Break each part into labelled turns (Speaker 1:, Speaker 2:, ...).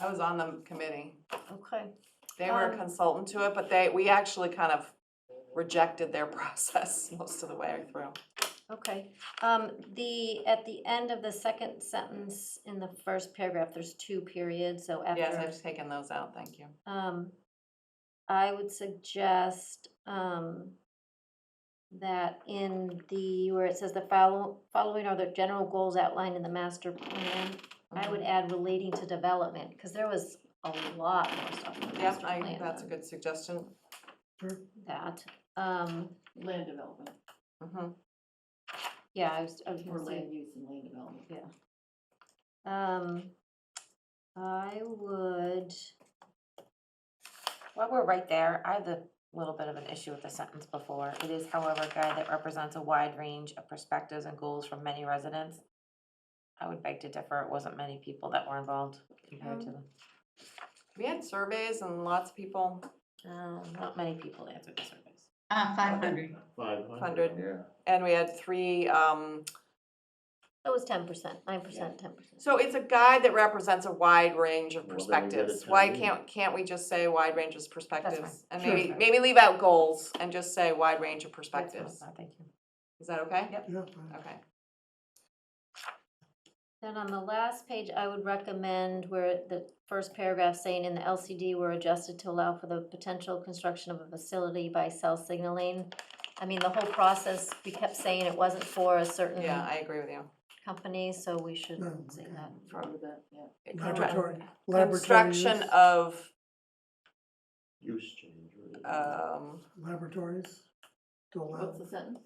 Speaker 1: I was on the committee.
Speaker 2: Okay.
Speaker 1: They were a
Speaker 2: Um,
Speaker 1: consultant to it, but they, we actually kind of rejected their process most of the way through.
Speaker 2: Okay, um, the, at the end of the second sentence in the first paragraph, there's two periods, so
Speaker 1: Yes,
Speaker 2: after,
Speaker 1: I've taken those out, thank you.
Speaker 2: um, I would suggest, um, that in the, where it says the follow, following are the general goals outlined in the master plan, I would
Speaker 1: Mm-hmm.
Speaker 2: add relating to development, cause there was a lot more stuff in the
Speaker 1: Yes, Mm-hmm.
Speaker 2: master
Speaker 1: I,
Speaker 2: plan
Speaker 1: that's a
Speaker 2: than
Speaker 1: good suggestion.
Speaker 2: That, um,
Speaker 3: Land development,
Speaker 1: Mhm.
Speaker 2: yeah, I was, I was gonna
Speaker 3: or
Speaker 2: say.
Speaker 3: land use and land development.
Speaker 2: Um, I would,
Speaker 4: While we're right there, I have a little bit of an issue with the sentence before. It is however a guide that represents a wide range of perspectives and goals from many residents. I would beg to differ. It wasn't many people that were involved compared to them.
Speaker 1: We had surveys and lots of people,
Speaker 4: Um, Not many people answered the surveys.
Speaker 5: Uh, five hundred.
Speaker 6: Five
Speaker 1: Hundred.
Speaker 6: Yeah.
Speaker 1: and we had three, um,
Speaker 2: it was ten percent, nine percent, ten percent.
Speaker 1: so it's a guide that represents a wide range of
Speaker 6: Well, then we did a
Speaker 1: perspectives.
Speaker 6: town
Speaker 1: Why
Speaker 6: meeting.
Speaker 1: can't, can't we just say wide range of perspectives? And
Speaker 4: Sure.
Speaker 1: maybe, maybe leave out goals and just say wide range of
Speaker 4: That's what I
Speaker 1: perspectives.
Speaker 4: thought, Thank you.
Speaker 1: Is that okay?
Speaker 4: Yep.
Speaker 7: uh,
Speaker 1: Okay.
Speaker 2: Then on the last page, I would recommend where the first paragraph saying in the LCD were adjusted to allow for the potential construction of a facility by cell signaling. I mean, the whole process, we kept saying it wasn't for a certain
Speaker 1: Yeah, I agree with you.
Speaker 2: company, so we should
Speaker 7: No,
Speaker 2: say
Speaker 7: okay.
Speaker 2: that.
Speaker 3: Remember that, yeah.
Speaker 1: Correct.
Speaker 7: Laboratory, laboratory
Speaker 1: Construction
Speaker 7: use,
Speaker 1: of,
Speaker 6: Use change. right?
Speaker 1: um,
Speaker 7: laboratories to allow,
Speaker 3: What's the sentence?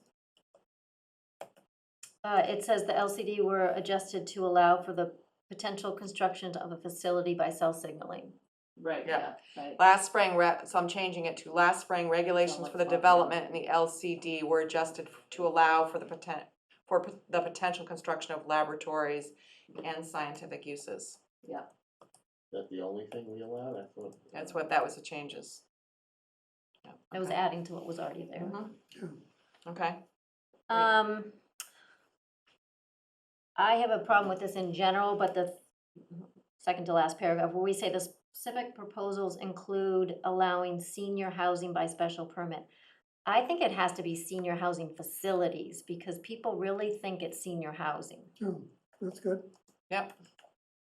Speaker 2: Uh, it says the LCD were adjusted to allow for the potential construction of a facility by cell signaling.
Speaker 3: Right, yeah,
Speaker 1: Yeah.
Speaker 3: right.
Speaker 1: last spring, re- so I'm changing it to last spring, regulations
Speaker 3: like
Speaker 1: for the
Speaker 3: software.
Speaker 1: development and the LCD were adjusted f- to allow for the poten- for p- the potential construction of laboratories and scientific uses.
Speaker 6: Is that the only thing we allowed? I thought.
Speaker 1: That's what, that was the changes. Yeah,
Speaker 2: It was
Speaker 1: okay.
Speaker 2: adding to what was already there.
Speaker 1: Mhm.
Speaker 7: yeah.
Speaker 1: Okay, Right.
Speaker 2: Um, I have a problem with this in general, but the second to last paragraph, where we say the specific proposals include allowing senior housing by special permit. I think it has to be senior housing facilities, because people really think it's senior housing.
Speaker 7: Oh, That's good.
Speaker 1: yep,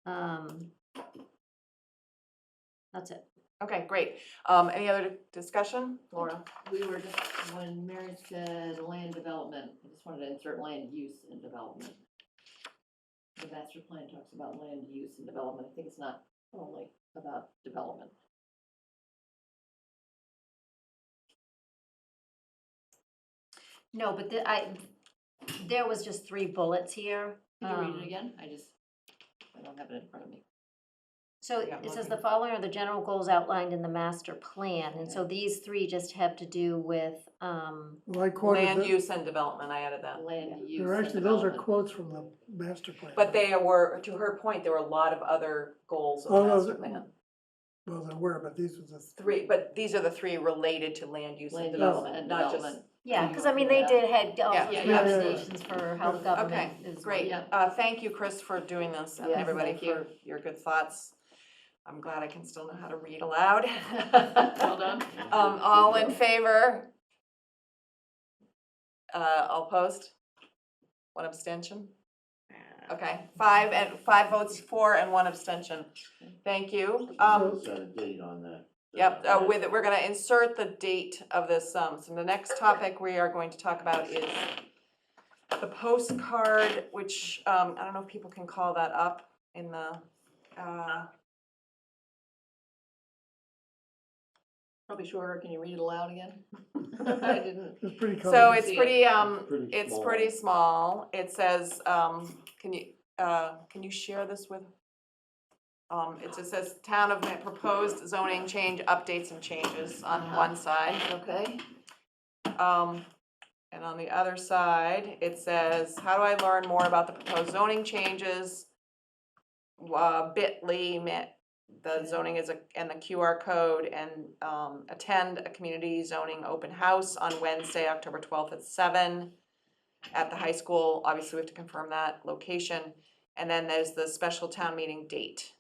Speaker 2: Um, that's it.
Speaker 1: okay, great. Um, any other discussion? Laura?
Speaker 3: We were just, when Mary said land development, I just wanted to insert land use and development. The master plan talks about land use and development, I think it's not only about development.
Speaker 2: No, but the, I, there was just three bullets here.
Speaker 3: Can you read
Speaker 2: um,
Speaker 3: it again? I just, I don't have it in front of me.
Speaker 2: So
Speaker 1: Yeah,
Speaker 2: it says
Speaker 1: looking.
Speaker 2: the following are the general goals outlined in the master plan, and so these three just have to do with, um,
Speaker 7: Well, I quoted
Speaker 1: Land
Speaker 7: the-
Speaker 1: use and development, I added that.
Speaker 3: Land use
Speaker 7: They're
Speaker 3: and
Speaker 7: actually, those are
Speaker 3: development.
Speaker 7: quotes from the master plan.
Speaker 1: But they were, to her point, there were a lot of other goals in the
Speaker 7: Oh, those-
Speaker 1: master plan.
Speaker 7: Well, they were, but these were the.
Speaker 1: Three, but these are the three related to land use
Speaker 3: Land
Speaker 1: and
Speaker 3: use
Speaker 1: development,
Speaker 3: and
Speaker 1: not just.
Speaker 3: development.
Speaker 2: yeah,
Speaker 3: you
Speaker 2: because
Speaker 3: go
Speaker 2: I mean,
Speaker 3: through
Speaker 2: they
Speaker 3: that.
Speaker 2: did had all
Speaker 1: Yeah,
Speaker 2: sorts
Speaker 3: yeah,
Speaker 2: of
Speaker 3: yeah, yeah, yeah.
Speaker 2: recommendations for how
Speaker 7: Okay,
Speaker 2: government is.
Speaker 1: Great,
Speaker 3: Yeah.
Speaker 1: uh, thank you, Chris, for doing this, and
Speaker 3: Yes,
Speaker 1: everybody
Speaker 3: thank you.
Speaker 1: for your good thoughts. I'm glad I can still know how to read aloud.
Speaker 3: Well done.
Speaker 1: Um, all in favor? Uh, all opposed? One abstention? Okay, five and, five votes for and one abstention. Thank you. Um,
Speaker 6: Set a date on that.
Speaker 1: Yep, uh, with, we're gonna insert the date of this, um, so the next topic we are going to talk about is the postcard, which, um, I don't know if people can call that up in the, uh,
Speaker 3: Probably shorter, can you read it aloud again? I didn't.
Speaker 7: It's pretty common.
Speaker 1: so it's
Speaker 3: see it.
Speaker 1: pretty, um,
Speaker 6: It's pretty
Speaker 1: it's pretty small. It says, um, can you, uh, can you share this with? Um, it just says town of, Ma- proposed zoning change, updates and changes on
Speaker 3: Uh-huh.
Speaker 1: one side.
Speaker 3: Okay.
Speaker 1: Um, and on the other side, it says, how do I learn more about the proposed zoning changes? Uh, bitly, ma- the zoning is a, and the QR code and, um, attend a community zoning open house on Wednesday, October twelfth at seven. At the high school, obviously we have to confirm that location, and then there's the special town meeting date.